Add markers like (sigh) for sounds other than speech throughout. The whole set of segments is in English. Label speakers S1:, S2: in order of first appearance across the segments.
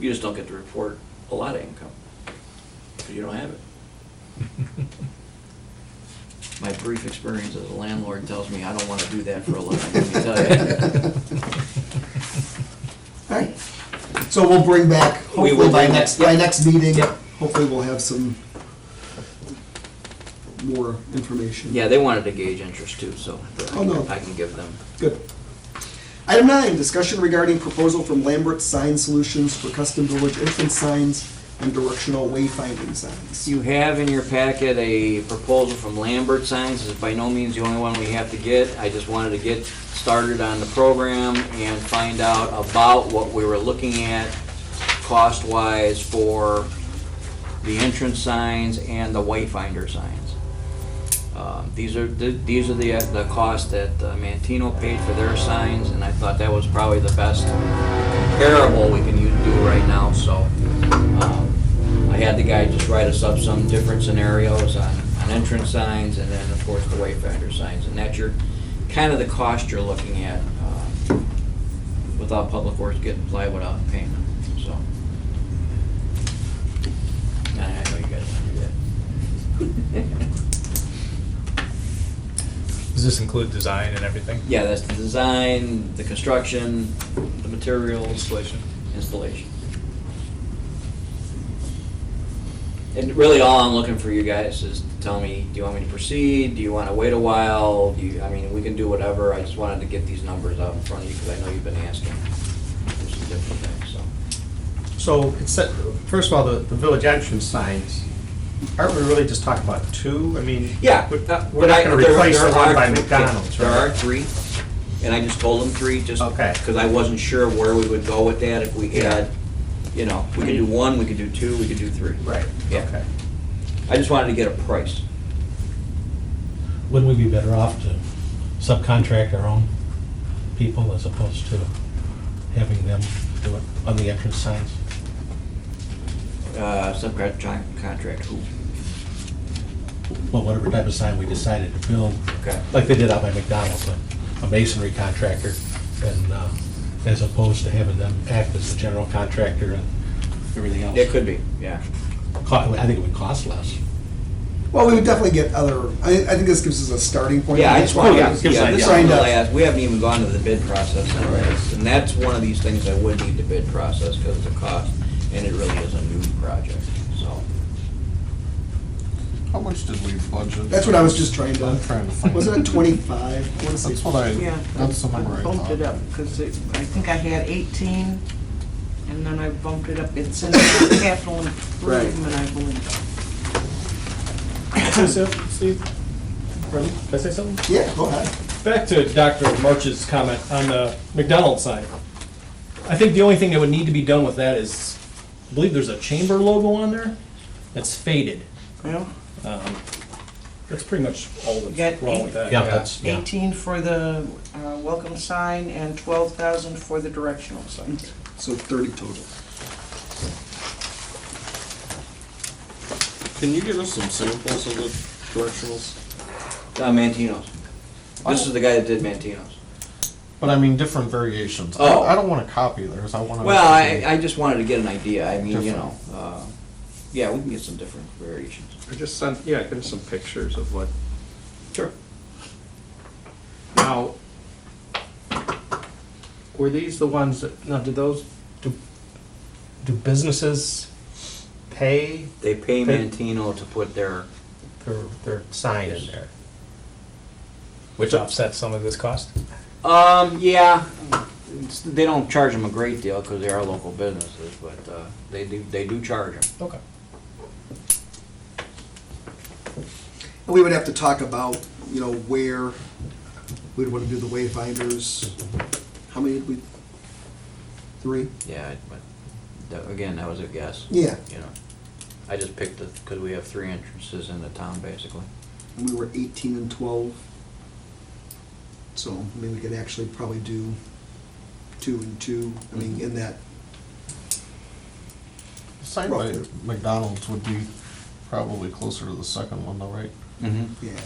S1: You just don't get to report a lot of income, 'cause you don't have it. My brief experience as a landlord tells me I don't want to do that for a living, let me
S2: (laughs)
S1: tell you.
S2: Alright, so we'll bring back,
S1: We will
S2: hopefully by
S1: bring
S2: next,
S1: that,
S2: by
S1: yep.
S2: next meeting,
S1: Yep.
S2: hopefully we'll have some more information.
S1: Yeah, they wanted to gauge interest too, so
S2: Oh, no.
S1: I can give them.
S2: Good. Item nine, discussion regarding proposal from Lambert Sign Solutions for custom village entrance signs and directional wayfinding signs.
S1: You have in your packet a proposal from Lambert Signs, This is by no means the only one we have to get. I just wanted to get started on the program and find out about what we were looking at cost-wise for the entrance signs and the wayfinder signs. Uh, These are, th- these are the, uh, the cost that uh, Mantino paid for their signs, and I thought that was probably the best comparable we can u- do right now, so. um, I had the guy just write us up some different scenarios on, on entrance signs, and then, of course, the wayfinder signs, and that's your, kind of the cost you're looking at, uh, without Public Works getting plywood out and payment, so. And I know you guys want to do that. (laughs)
S3: Does this include design and everything?
S1: Yeah, that's the design, the construction, the materials,
S3: Installation?
S1: installation. And really, all I'm looking for you guys is to tell me, do you want me to proceed? Do you want to wait a while? Do you, I mean, we can do whatever. I just wanted to get these numbers out in front of you because I know you've been asking for some different things, so.
S4: So, it's set- first of all, the, the village entrance signs, aren't we really just talking about two? I mean.
S1: Yeah.
S4: We're
S1: uh,
S4: we're
S1: but I-
S4: not gonna
S1: there-
S4: replace
S1: there
S4: the one
S1: are
S4: by
S1: three-
S4: McDonald's,
S1: There are
S4: right?
S1: three, and I just told them three, just
S4: Okay.
S1: because I wasn't sure where we would go with that if we
S4: Yeah.
S1: had, you know, we could do one, we could do two, we could do three.
S4: Right,
S1: Yeah.
S4: okay.
S1: I just wanted to get a price.
S5: Wouldn't we be better off to subcontract our own people as opposed to having them do it on the entrance signs?
S1: Uh, Subcontract who?
S5: Well, whatever type of sign we decided to build,
S1: Okay.
S5: like they did out by McDonald's, a- a masonry contractor, and uh, as opposed to having them act as the general contractor and everything else.
S1: It could be, yeah.
S5: Co- I think it would cost less.
S2: Well, we would definitely get other, I, I think this gives us a starting point.
S1: Yeah, I just want,
S5: Oh, yeah,
S1: yeah,
S5: it gives an
S1: this
S5: idea.
S1: is the
S2: Signed up.
S1: last, we haven't even gone to the bid process on this, and that's one of these things I would need to bid process because of the cost, and it really is a new project, so.
S6: How much did we budget?
S2: That's what I was just trying
S4: I'm
S2: to,
S4: trying to find.
S2: wasn't it twenty-five? I wanna say
S6: That's what I,
S7: Yeah.
S6: that's the number I
S7: I
S6: thought.
S7: bumped it up, because I think I had 18, and then I bumped it up, it's in the capital improvement, I believe.
S8: Steve, Steve, pardon, can I say something?
S2: Yeah, go ahead.
S8: Back to Dr. March's comment on the McDonald's sign. I think the only thing that would need to be done with that is, I believe there's a chamber logo on there that's faded.
S7: Yeah.
S8: Um, That's pretty much all
S7: Got
S8: that's wrong with that.
S5: Yeah, that's, yeah.
S7: 18 for the uh, welcome sign and 12,000 for the directional sign.
S2: So thirty total.
S6: Can you give us some samples of the directionals?
S1: Uh, Mantino's. This is the guy that did Mantino's.
S6: But I mean, different variations. I-
S1: Oh.
S6: I don't want to copy theirs, I want to.
S1: Well, I, I just wanted to get an idea, I mean, you know,
S6: Different.
S1: uh, yeah, we can get some different variations.
S9: Or just send, yeah, give us some pictures of what,
S1: Sure.
S9: now, were these the ones that, now, do those, do, do businesses pay
S1: They pay
S9: They-
S1: Mantino to put their,
S4: Their, their sign in there.
S3: Which offsets some of this cost?
S1: um, yeah, it's- they don't charge them a great deal because they are local businesses, but, uh, they do, they do charge them.
S3: Okay.
S2: And we would have to talk about, you know, where we'd want to do the wayfinders. How many did we? Three?
S1: Yeah, but, that- again, that was a guess,
S2: Yeah,
S1: you know. I just picked it because we have three entrances in the town, basically.
S2: and we were eighteen and twelve. So, I mean, we could actually probably do two and two, I mean, in that,
S6: Sign by McDonald's would be probably closer to the second one though, right?
S1: Mm-hmm.
S2: yeah.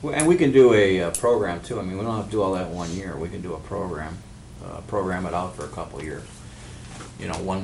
S1: Well, And we can do a uh, program too, I mean, we don't have to do all that one year, we can do a program, uh, program it out for a couple years. You know, one